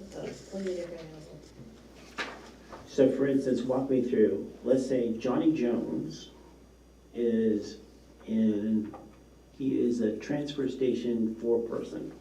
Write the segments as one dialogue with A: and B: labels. A: need a variable.
B: So for instance, walk me through, let's say Johnny Jones is in, he is a transfer station four person.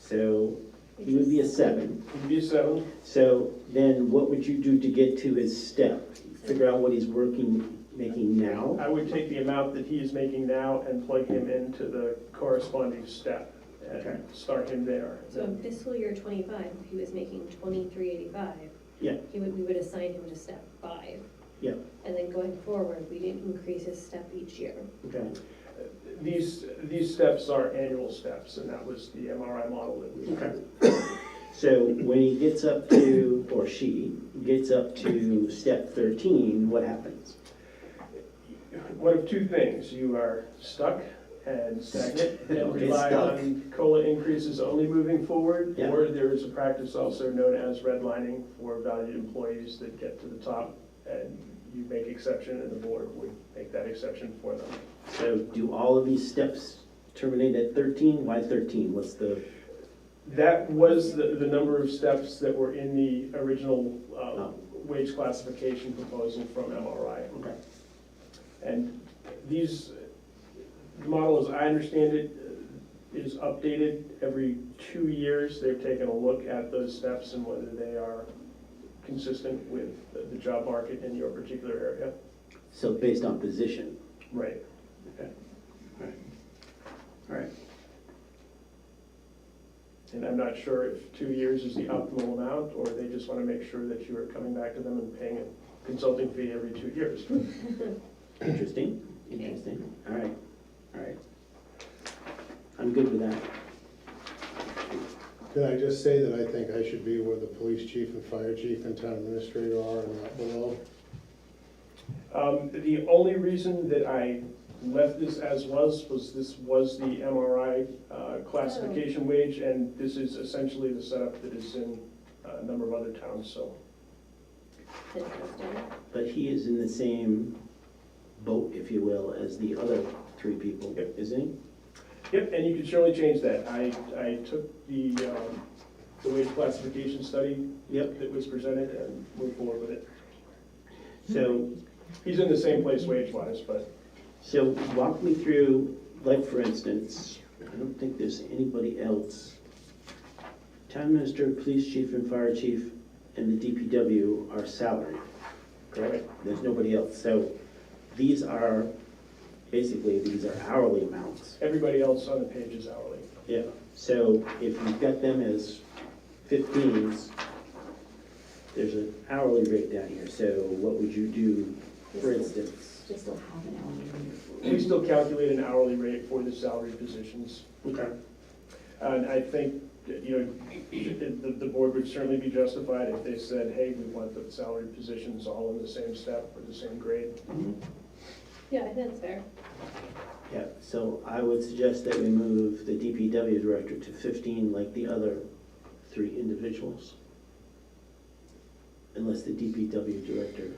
B: So he would be a seven.
C: It'd be seven.
B: So then what would you do to get to his step? Figure out what he's working, making now?
C: I would take the amount that he is making now and plug him into the corresponding step
B: Okay.
C: and start him there.
A: So in fiscal year twenty-five, if he was making twenty-three eighty-five.
B: Yeah.
A: He would, we would assign him to step five.
B: Yeah.
A: And then going forward, we didn't increase his step each year.
B: Okay,
C: These, these steps are annual steps, and that was the MRI model that we
B: okay. So when he gets up to, or she gets up to step thirteen, what happens?
C: One of two things, you are stuck and stagnant and
B: Okay,
C: rely
B: stuck.
C: on COLA increases only moving forward,
B: Yeah.
C: or there is a practice also known as redlining for valued employees that get to the top, and you make exception, and the board would make that exception for them.
B: So do all of these steps terminate at thirteen? Why thirteen? What's the?
C: That was the, the number of steps that were in the original uh,
B: Oh.
C: wage classification proposal from MRI.
B: Okay.
C: And these, the model, as I understand it, is updated every two years. They've taken a look at those steps and whether they are consistent with the- the job market in your particular area.
B: So based on position?
C: Right.
B: All right.
C: And I'm not sure if two years is the optimal amount, or they just want to make sure that you are coming back to them and paying a consulting fee every two years.
B: Interesting, interesting. All right, all right. I'm good with that.
D: Can I just say that I think I should be where the police chief and fire chief and town administrator are and not below?
C: Um, The only reason that I left this as was, was this was the MRI uh, classification wage, and this is essentially the setup that is in uh, a number of other towns, so.
A: Interesting.
B: But he is in the same boat, if you will, as the other three people,
C: Yep.
B: isn't he?
C: Yep, and you can surely change that. I, I took the, um, the wage classification study
B: Yep.
C: that was presented and moved forward with it.
B: So,
C: He's in the same place wage-wise, but
B: so walk me through, like, for instance, I don't think there's anybody else. Town minister, police chief, and fire chief, and the DPW are salaried.
C: correct.
B: There's nobody else, so these are, basically, these are hourly amounts.
C: Everybody else on the page is hourly.
B: Yeah. So if you've got them as fifteens, there's an hourly rate down here, so what would you do, for instance?
E: Just don't have an hourly
C: We still calculate an hourly rate for the salaried positions.
B: Okay.
C: And I think, that, you know, the, the board would certainly be justified if they said, hey, we want the salary positions all in the same step or the same grade.
B: Mm-hmm.
A: Yeah, I think that's fair.
B: Yeah, so I would suggest that we move the DPW director to fifteen like the other three individuals. Unless the DPW director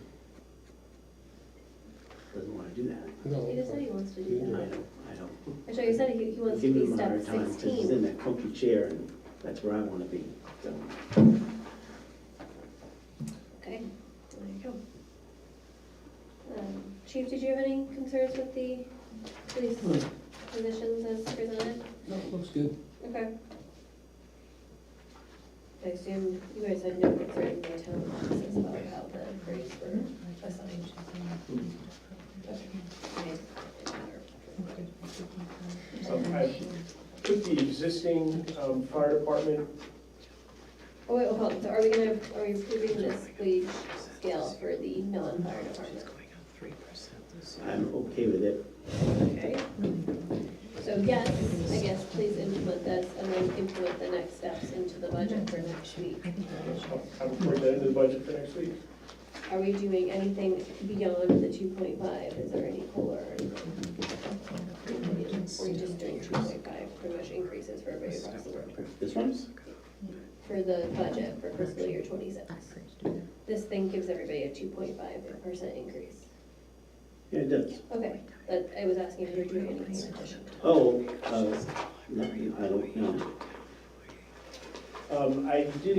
B: doesn't wanna do that.
D: No.
A: He just said he wants to
B: I
A: do that.
B: know, I know.
A: Actually, he said he, he wants to
B: Give
A: be
B: him a
A: step
B: hard time, 'cause he's in
A: sixteen.
B: that comfy chair, and that's where I wanna be, so.
A: Okay, there you go. Um, Chief, did you have any concerns with the police positions as presented?
F: No, it looks good.
A: Okay. I assume you guys had no concern in the town offices about how the grades were assigned. Okay.
C: Um, I put the existing um, fire department,
A: Oh, wait, hold on, so are we gonna, are we approving this wage scale for the non-fire department?
B: I'm okay with it.
A: Okay. So yes, I guess please implement this and then implement the next steps into the budget for next week.
C: I'll put that into the budget for next week.
A: Are we doing anything beyond the two point five? Is there any COLA or anything? Or are you just doing two point five, pretty much increases for everybody across the board?
B: This one's?
A: For the budget for fiscal year twenty-six. This thing gives everybody a two point five percent increase.
B: Yeah, it does.
A: Okay, but I was asking if you're doing anything in addition.
F: Uh,
B: Oh, uh, no, I don't know.
C: Um, I did